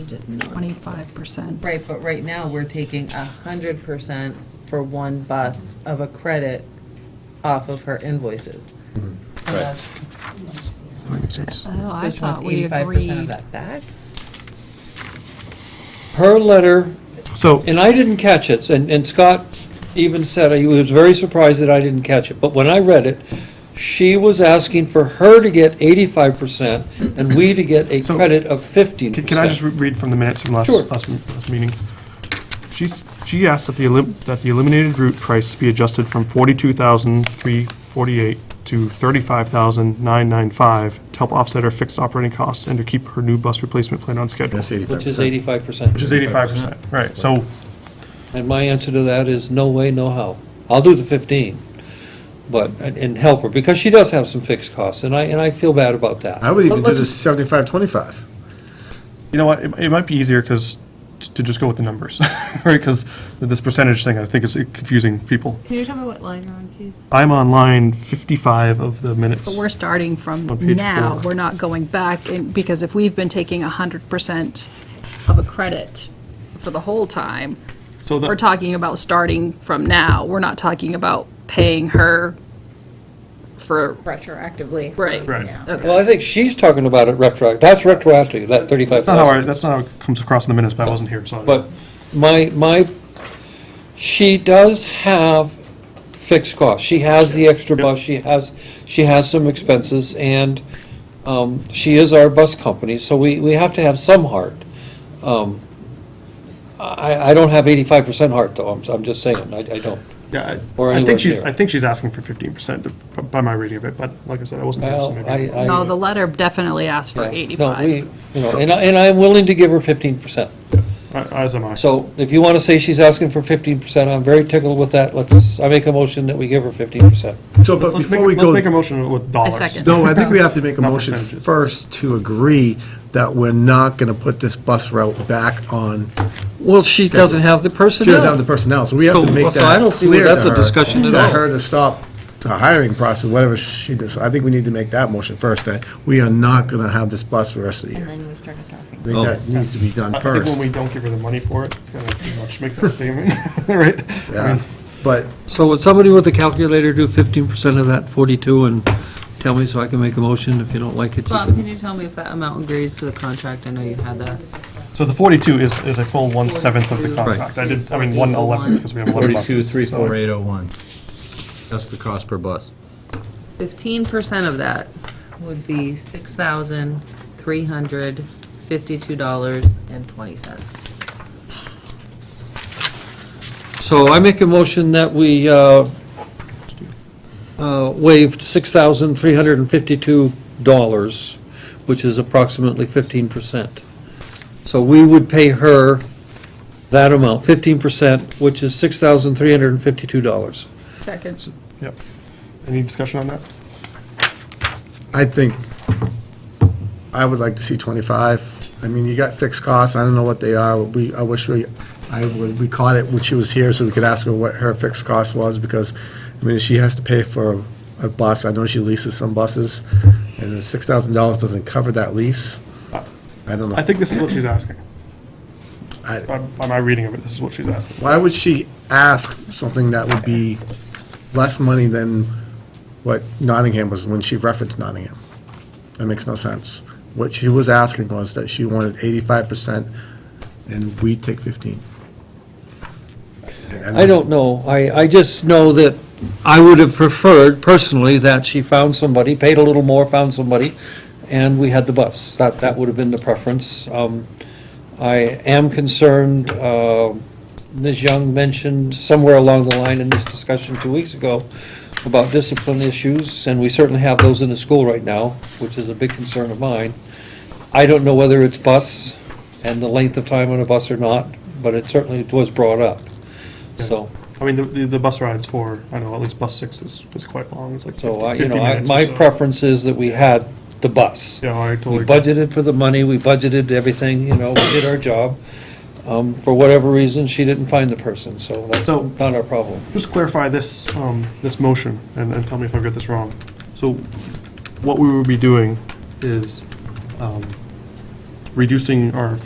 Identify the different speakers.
Speaker 1: Just not-
Speaker 2: twenty-five percent.
Speaker 1: Right, but right now, we're taking a hundred percent for one bus of a credit off of her invoices. So that's-
Speaker 2: Oh,
Speaker 1: so
Speaker 2: I
Speaker 1: she wants
Speaker 2: thought we
Speaker 1: 85% of
Speaker 2: agreed.
Speaker 1: that back?
Speaker 3: Her letter,
Speaker 4: So,
Speaker 3: and I didn't catch it, and, and Scott even said, he was very surprised that I didn't catch it, but when I read it, she was asking for her to get eighty-five percent and we to get a
Speaker 4: So-
Speaker 3: credit of fifteen
Speaker 4: can
Speaker 3: percent.
Speaker 4: can I just re- read from the minutes from last,
Speaker 3: Sure.
Speaker 4: last m- last meeting? She's, she asked that the, elim- that the eliminated route price be adjusted from 42,348 to 35,995 to help offset her fixed operating costs and to keep her new bus replacement plan on schedule.
Speaker 5: That's eighty-five
Speaker 4: Which
Speaker 3: Which is
Speaker 5: percent.
Speaker 3: eighty-five percent.
Speaker 4: is 85%, right, so,
Speaker 3: And my answer to that is no way, no how. I'll do the 15, but, and- and help her, because she does have some fixed costs, and I, and I feel bad about that.
Speaker 5: I would even do
Speaker 4: Let's
Speaker 5: the
Speaker 4: just-
Speaker 5: seventy-five, twenty-five.
Speaker 4: you know what, it it might be easier, because, to just go with the numbers, right, because this percentage thing, I think is confusing people.
Speaker 6: Can you tell me what line you're on, Keith?
Speaker 4: I'm on line 55 of the minutes.
Speaker 2: But we're starting from
Speaker 4: On page
Speaker 2: now,
Speaker 4: four.
Speaker 2: we're not going back, and- because if we've been taking hundred percent of a credit for the whole time,
Speaker 4: So the-
Speaker 2: we're talking about starting from now, we're not talking about paying her for,
Speaker 1: Retroactively.
Speaker 2: right.
Speaker 4: Right.
Speaker 3: Well, I think she's talking about it retroactive, that's retroactive, that 35.
Speaker 4: That's not how, I- that's not how it comes across in the minutes, but I wasn't here, so. I-
Speaker 3: But my, my, she does have fixed costs. She has the extra bus, she has, she has some expenses, and um, she is our bus company, so we, we have to have some heart. Um, I, I don't have eighty-five percent heart, though, I'm, I'm just saying, I, I don't.
Speaker 4: Yeah, I-
Speaker 3: or
Speaker 4: I
Speaker 3: anywhere
Speaker 4: think she's,
Speaker 3: near.
Speaker 4: I think she's asking for fifteen percent by my reading of it, but like I said, I wasn't here, so
Speaker 3: Well, I,
Speaker 4: maybe.
Speaker 3: I.
Speaker 2: No, the letter definitely asked for
Speaker 3: yeah, no,
Speaker 2: eighty-five.
Speaker 3: we- You know, and I, and I'm willing to give her fifteen percent.
Speaker 4: As am I.
Speaker 3: So if you want to say she's asking for fifteen percent, I'm very tickled with that. Let's, I make a motion that we give her fifteen percent.
Speaker 5: So, but
Speaker 4: Let's- Let's make,
Speaker 5: before we
Speaker 4: let's
Speaker 5: go,
Speaker 4: make a motion with dollars.
Speaker 2: second.
Speaker 5: no, I think we have to make a
Speaker 4: Not
Speaker 5: motion
Speaker 4: percentages.
Speaker 5: first to agree that we're not gonna put this bus route back on,
Speaker 3: Well, she doesn't have the
Speaker 5: she
Speaker 3: personnel.
Speaker 5: doesn't have the personnel, so we have to
Speaker 3: So,
Speaker 5: make
Speaker 3: so I
Speaker 5: that
Speaker 3: don't see where
Speaker 5: clear to
Speaker 3: that's a
Speaker 5: her,
Speaker 3: discussion at
Speaker 5: That
Speaker 3: all.
Speaker 5: her to stop the hiring process, whatever she does, I think we need to make that motion first, that we are not gonna have this bus for the rest of the
Speaker 6: And
Speaker 5: year.
Speaker 6: then we started talking.
Speaker 5: I think that needs to be done
Speaker 4: I think when we
Speaker 5: first,
Speaker 4: don't give her the money for it, it's gonna pretty much make that statement, right? I
Speaker 5: Yeah.
Speaker 4: mean,
Speaker 5: but
Speaker 3: So would somebody with a calculator do fifteen percent of that forty-two and tell me so I can make a motion? If you don't like it, you
Speaker 1: Bob, can
Speaker 3: can.
Speaker 1: you tell me if that amount agrees to the contract? I know you had that.
Speaker 4: So the forty-two is, is a full one-seventh of the contract. I did, I mean, one-eleventh, because we have eleven buses.
Speaker 7: Forty-two, three,
Speaker 4: so-
Speaker 7: four, eight, oh, one. That's the cost per bus.
Speaker 1: Fifteen percent of that would be six thousand, three hundred, fifty-two dollars and twenty cents.
Speaker 3: So I make a motion that we uh, uh, waived six thousand three hundred and fifty-two dollars, which is approximately fifteen percent. So we would pay her that amount, fifteen percent, which is six thousand three hundred and fifty-two dollars.
Speaker 2: Second.
Speaker 4: Yep. Any discussion on that?
Speaker 5: I think I would like to see 25. I mean, you got fixed costs, I don't know what they are, we, I wish we, I would, we caught it when she was here, so we could ask her what her fixed cost was, because, I mean, she has to pay for a bus, I know she leases some buses, and the $6,000 doesn't cover that lease. I don't
Speaker 4: I
Speaker 5: know.
Speaker 4: think this is what she's asking.
Speaker 5: I-
Speaker 4: By, by my reading of it, this is what she's asking.
Speaker 5: Why would she ask something that would be less money than what Nottingham was, when she referenced Nottingham? That makes no sense. What she was asking was that she wanted eighty-five percent, and we take fifteen. And-
Speaker 3: I don't know. I, I just know that I would have preferred personally that she found somebody, paid a little more, found somebody, and we had the bus. That, that would have been the preference. Um, I am concerned, uh, Ms. Young mentioned somewhere along the line in this discussion two weeks ago about discipline issues, and we certainly have those in the school right now, which is a big concern of mine. I don't know whether it's bus and the length of time on a bus or not, but it certainly was brought up, so.
Speaker 4: I mean, the, the the bus rides for, I know, at least bus six is, is quite long, it's like
Speaker 3: So,
Speaker 4: fifty
Speaker 3: I- you
Speaker 4: 50
Speaker 3: know, I-
Speaker 4: minutes or
Speaker 3: my
Speaker 4: so.
Speaker 3: preference is that we had the bus.
Speaker 4: Yeah, I
Speaker 3: We
Speaker 4: totally. agree.
Speaker 3: budgeted for the money, we budgeted everything, you know, we did our job. Um, For whatever reason, she didn't find the person, so that's
Speaker 4: So-
Speaker 3: not our problem.
Speaker 4: Just clarify this, um, this motion, and, and tell me if I've got this wrong. So what we would be doing is, um, reducing our